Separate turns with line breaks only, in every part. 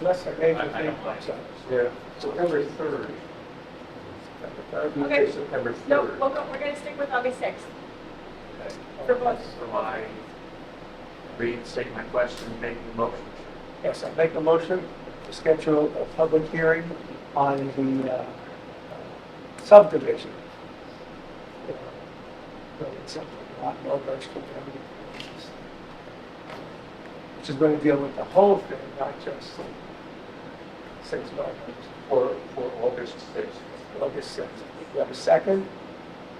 unless a major thing pops up.
Yeah.
September 3rd. September 3rd,
Okay.
September
No,
3rd.
we're go- we're going to stick with August 6th.
Okay.
For both.
So I reinstate my question, make the motion.
Yes, I make a motion to schedule a public hearing on the uh, subdivision. But it's a lot more versatile than everything else. Which is going to deal with the whole thing, not just six bylaws.
For, for August 6th.
August sixth. You have a second?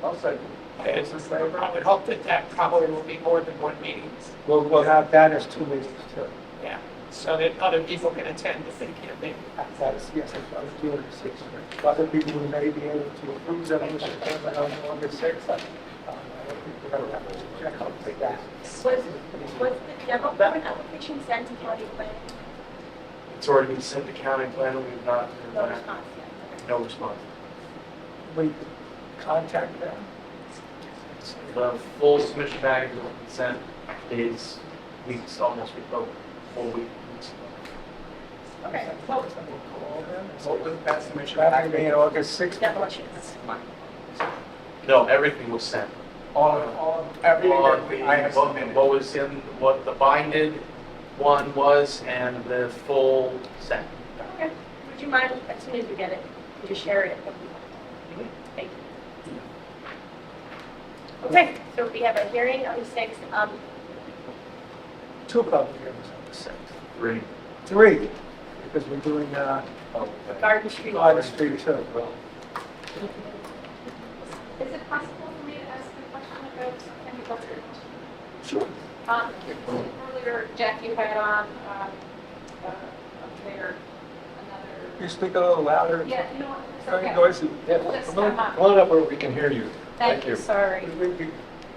I'll second.
As a member, I would hope that that probably will be more than one meeting,
We'll, we'll have that as two meetings too.
yeah, so that other people can attend if they can't make. it.
That is, yes, that's what I was doing the sixth. Other people who may be able to approve that on the September, on August sixth. um, I don't think we're gonna have to check out for that.
Was, was the demo for an application sent to county planning?
It's already been sent to county planner, we've not, heard
No
back.
response yet.
no response.
We contact them.
The full submission package of consent is weeks, almost week, oh, four weeks.
Okay,
Um, We'll
well,
call them.
What was that submission
That will be on
package?
August sixth.
demolitions.
No, everything was sent.
All, all,
on
everything
the,
that I have
what
submitted.
what was in, what the binded one was and the full set.
Okay. Would you mind, as soon as we get it, to share it? with people? Thank you. Okay, so we have a hearing on the 6th. Um,
Two public hearings on the sixth.
Three. Oh,
Three, because we're doing, uh,
Garden Street.
Garden Street too.
Is it possible for me to ask a question about Kenny Buzzard?
Sure.
Um, earlier, Jack, you had on, um, uh, up there,
Can
another,
you speak a little louder?
yeah, you know, what, it's
Very
okay.
noisy.
Just come up.
Come on up where we can hear you. Thank you.
sorry.
We- we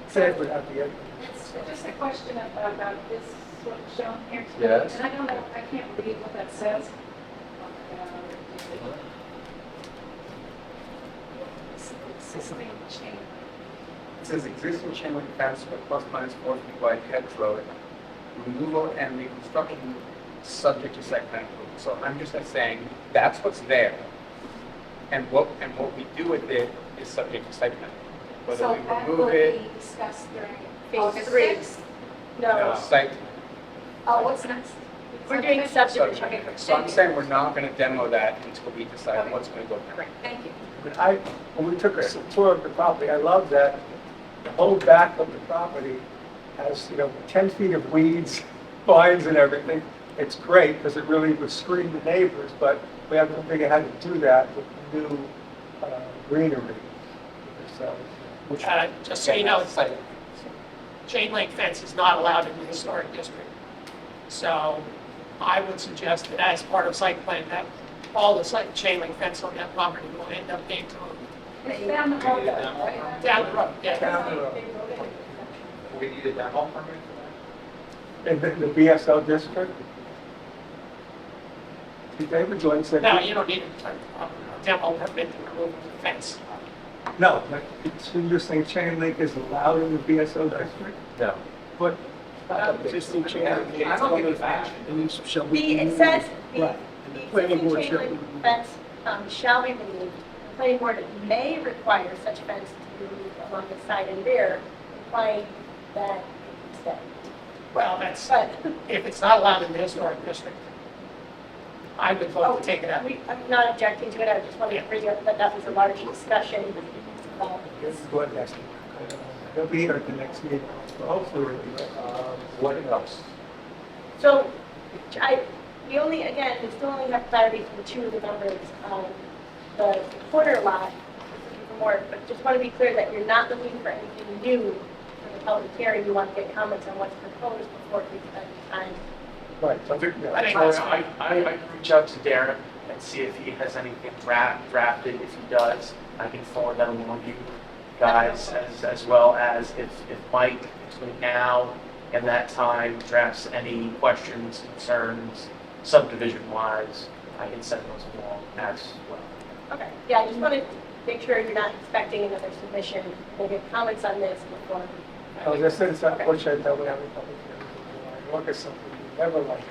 Said without the end.
It's just a question about, about this, what's shown here.
Yes.
And I don't know, I can't read what that says. Existing chain,
It says existing chain link fence with plus minus four feet wide hedge row. Removal and reconstruction subject to site plan approval. So I'm just saying, that's what's there. And what, and what we do with it is subject to site plan. approval.
so that
Whether we
will
remove it,
be discussed during
Phase
August
three.
6th.
uh,
No,
site.
Oh, what's next?
we're doing subdivision. Okay,
subject. So I'm saying we're not going to demo that until we decide
Okay.
what's going to go there.
Great, thank you.
But I, when we took a tour of the property, I love that the whole back of the property has, you know, 10 feet of weeds, vines and everything. It's great because it really would screen the neighbors, but we haven't figured how to do that with new uh, greenery. So, which,
Uh, Just so you know, it's
Site.
chain link fence is not allowed in the historic district. So I would suggest that as part of site plan, that all the site chain link fence on that property will end up being to-
It's down the road, right?
down the road, yeah.
Down the road.
They wrote it.
We need a demo permit for
in the the BSL district. See, David Joyce said.
No, you don't need a a demo permit to remove the fence.
No, but it's- you're saying chain link is allowed in the BSO district?
No.
But
Existing chain link fence. And these shall be.
The, it says, the
Right.
the
Planning
existing
board
chain
shall-
link fence um, shall be removed. The planning board may require such fence to be removed along the side and rear, implying that it's that.
Well, that's,
But,
if it's not allowed in the historic district, I would vote to take it out.
oh, we, I'm not objecting to it, I just wanted to bring up that that was a large discussion. um, about
this is what next, they'll be here at the next meeting, so hopefully.
What else?
So, I, we only, again, we still only have clarity from two of the members, um, the corner lot, for more, but just want to be clear that you're not looking for anything new for the public hearing, you want to get comments on what's proposed before we spend time.
Right, so,
I
yeah,
think that's
I, I, I can reach out to Darren and see if he has anything draft, drafted. If he does, I can forward that along to you guys as, as well as if, if Mike between now and that time drafts any questions, concerns, subdivision wise, I can send those along as well.
Okay. Yeah, I just want to make sure you're not expecting another submission, we'll get comments on this before.
I was just saying, it's unfortunate that we have a public hearing. I look at something you never like.